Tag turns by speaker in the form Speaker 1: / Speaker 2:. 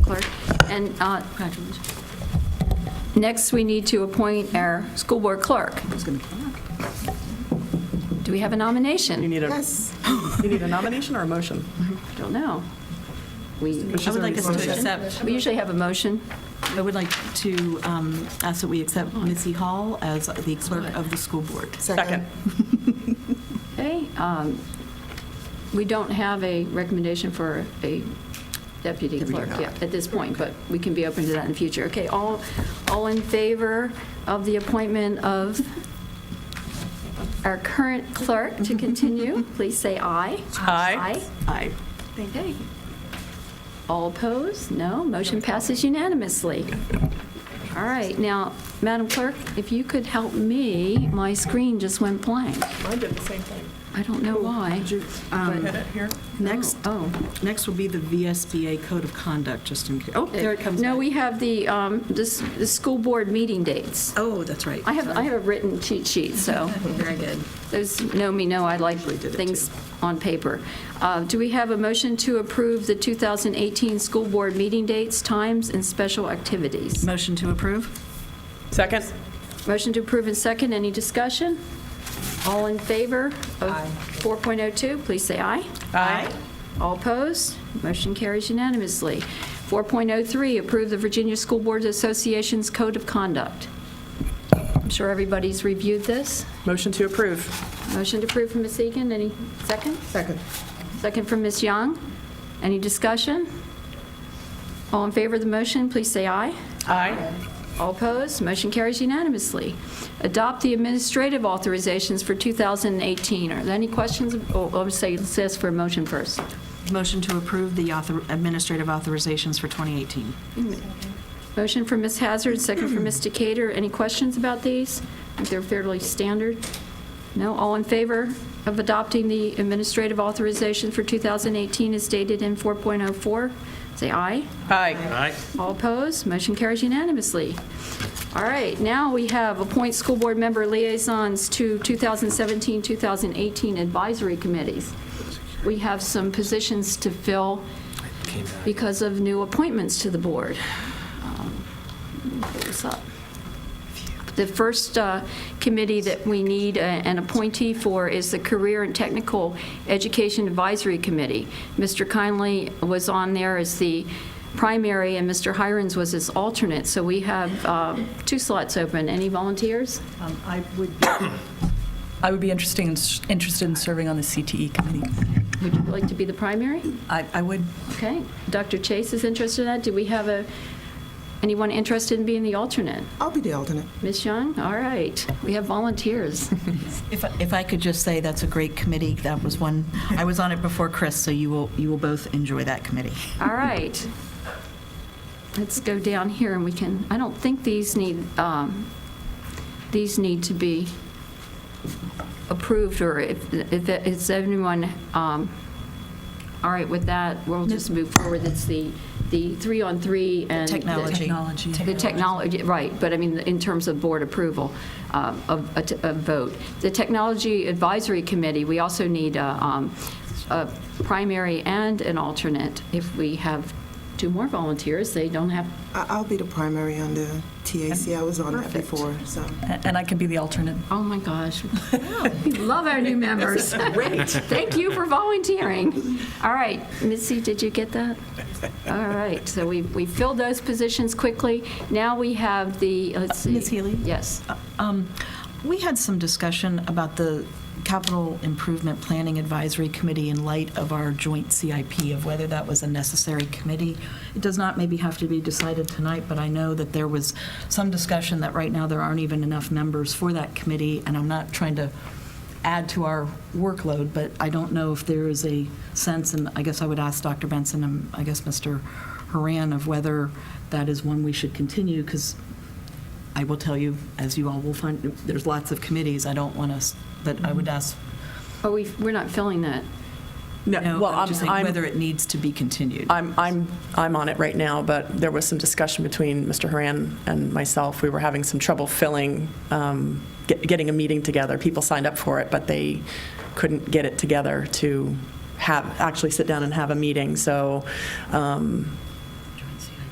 Speaker 1: clerk. And uh, next, we need to appoint our school board clerk. Do we have a
Speaker 2: You
Speaker 1: nomination?
Speaker 2: need a,
Speaker 3: Yes.
Speaker 2: you need a nomination or a motion?
Speaker 1: I Don't know. We
Speaker 4: I would like us to
Speaker 2: Motion.
Speaker 4: accept,
Speaker 1: we usually have a motion.
Speaker 4: I would like to um, ask that we accept Missy Hall as the clerk of the school board.
Speaker 2: Second.
Speaker 1: Okay, um, we don't have a recommendation for a deputy clerk yet at this point, but we can be open to that in the future. Okay, all, all in favor of the appointment of our current clerk to continue, please say aye.
Speaker 2: Aye.
Speaker 4: Aye.
Speaker 1: Aye, okay. All opposed? No, motion passes unanimously. All right, now, Madam Clerk, if you could help me, my screen just went blank.
Speaker 2: I did the same thing.
Speaker 1: I don't know why.
Speaker 4: Um,
Speaker 2: Hit it here.
Speaker 4: Oh, Next,
Speaker 1: Oh.
Speaker 4: next will be the VSBA Code of Conduct, just in case. Oh, there it comes.
Speaker 1: No,
Speaker 4: back.
Speaker 1: we have the, um, this, the school board meeting dates.
Speaker 4: Oh, that's right.
Speaker 1: I have, I have a written cheat sheet, so
Speaker 4: Very good.
Speaker 1: those know me know I like
Speaker 4: did it,
Speaker 1: things on paper. Uh, do we have a motion to approve the 2018 school board meeting dates, times, and special activities?
Speaker 4: Motion to approve?
Speaker 2: Second?
Speaker 1: Motion to approve and second, any discussion? All in favor of 4.02, please say aye.
Speaker 2: Aye.
Speaker 1: All opposed? Motion carries unanimously. 4.03, approve the Virginia School Boards Association's Code of Conduct. I'm sure everybody's reviewed this.
Speaker 2: Motion to approve.
Speaker 1: Motion to approve from Ms. Egan, any second?
Speaker 3: Second.
Speaker 1: Second from Ms. Young. Any discussion? All in favor of the motion, please say aye.
Speaker 2: Aye.
Speaker 1: All opposed? Motion carries unanimously. Adopt the administrative authorizations for 2018. Are there any questions? Oh, I'll say, let's ask for a motion first.
Speaker 4: Motion to approve the author- administrative authorizations for 2018.
Speaker 1: Motion for Ms. Hazard, second for Ms. Decatur. Any questions about these? I think They're fairly standard. No? All in favor of adopting the administrative authorization for 2018 as stated in 4.04? Say aye.
Speaker 2: Aye.
Speaker 5: Aye.
Speaker 1: All opposed? Motion carries unanimously. All right, now we have appoint school board member liaisons to 2017, 2018 advisory committees. We have some positions to fill because of new appointments to the board. Um, let me pull this up. The first uh, committee that we need a- an appointee for is the Career and Technical Education Advisory Committee. Mr. Kindly was on there as the primary, and Mr. Hirons was his alternate, so we have uh, two slots open. Any volunteers?
Speaker 6: Um, I would, I would be interesting, in- interested in serving on the CTE committee.
Speaker 1: Would you like to be the primary?
Speaker 6: I, I would,
Speaker 1: Okay. Dr. Chase is interested in that. Do we have a, anyone interested in being the alternate?
Speaker 3: I'll be the alternate.
Speaker 1: Ms. Young? All right. We have volunteers.
Speaker 4: If, I- if I could just say, that's a great committee. That was one, I was on it before Chris, so you will, you will both enjoy that committee.
Speaker 1: All right. Let's go down here and we can, I don't think these need, um, these need to be approved or if, if is anyone, um, all right with that, we'll just move forward. It's the, the three-on-three and. the-
Speaker 4: Technology.
Speaker 6: technology.
Speaker 1: The technology, right, but I mean, in terms of board approval um, of a t- a vote. The Technology Advisory Committee, we also need a um, a primary and an alternate. If we have two more volunteers, they don't have,
Speaker 3: I- I'll be the primary on the TAC. I was on that
Speaker 1: Perfect.
Speaker 3: before, so.
Speaker 6: A- And I can be the alternate.
Speaker 1: oh my gosh, we love our new members. Great. Thank you for volunteering. All right, Missy, did you get that? All right, so we we filled those positions quickly. Now we have the, let's see.
Speaker 4: Ms. Healy?
Speaker 1: Yes.
Speaker 4: Um, We had some discussion about the Capital Improvement Planning Advisory Committee in light of our joint CIP, of whether that was a necessary committee. It does not maybe have to be decided tonight, but I know that there was some discussion that right now there aren't even enough members for that committee, and I'm not trying to add to our workload, but I don't know if there is a sense, and I guess I would ask Dr. Benson and I guess Mr. Haran of whether that is one we should continue, because I will tell you, as you all will find, there's lots of committees. I don't want us, but I
Speaker 2: Mm-hmm.
Speaker 4: would ask,
Speaker 1: Oh, we, we're not filling that.
Speaker 2: No,
Speaker 4: no,
Speaker 2: well,
Speaker 4: I'm just saying
Speaker 2: I'm-
Speaker 4: whether it needs to be continued.
Speaker 2: I'm, I'm, I'm on it right now, but there was some discussion between Mr. Haran and myself. We were having some trouble filling, um, get- getting a meeting together. People signed up for it, but they couldn't get it together to have, actually sit down and have a meeting. So um,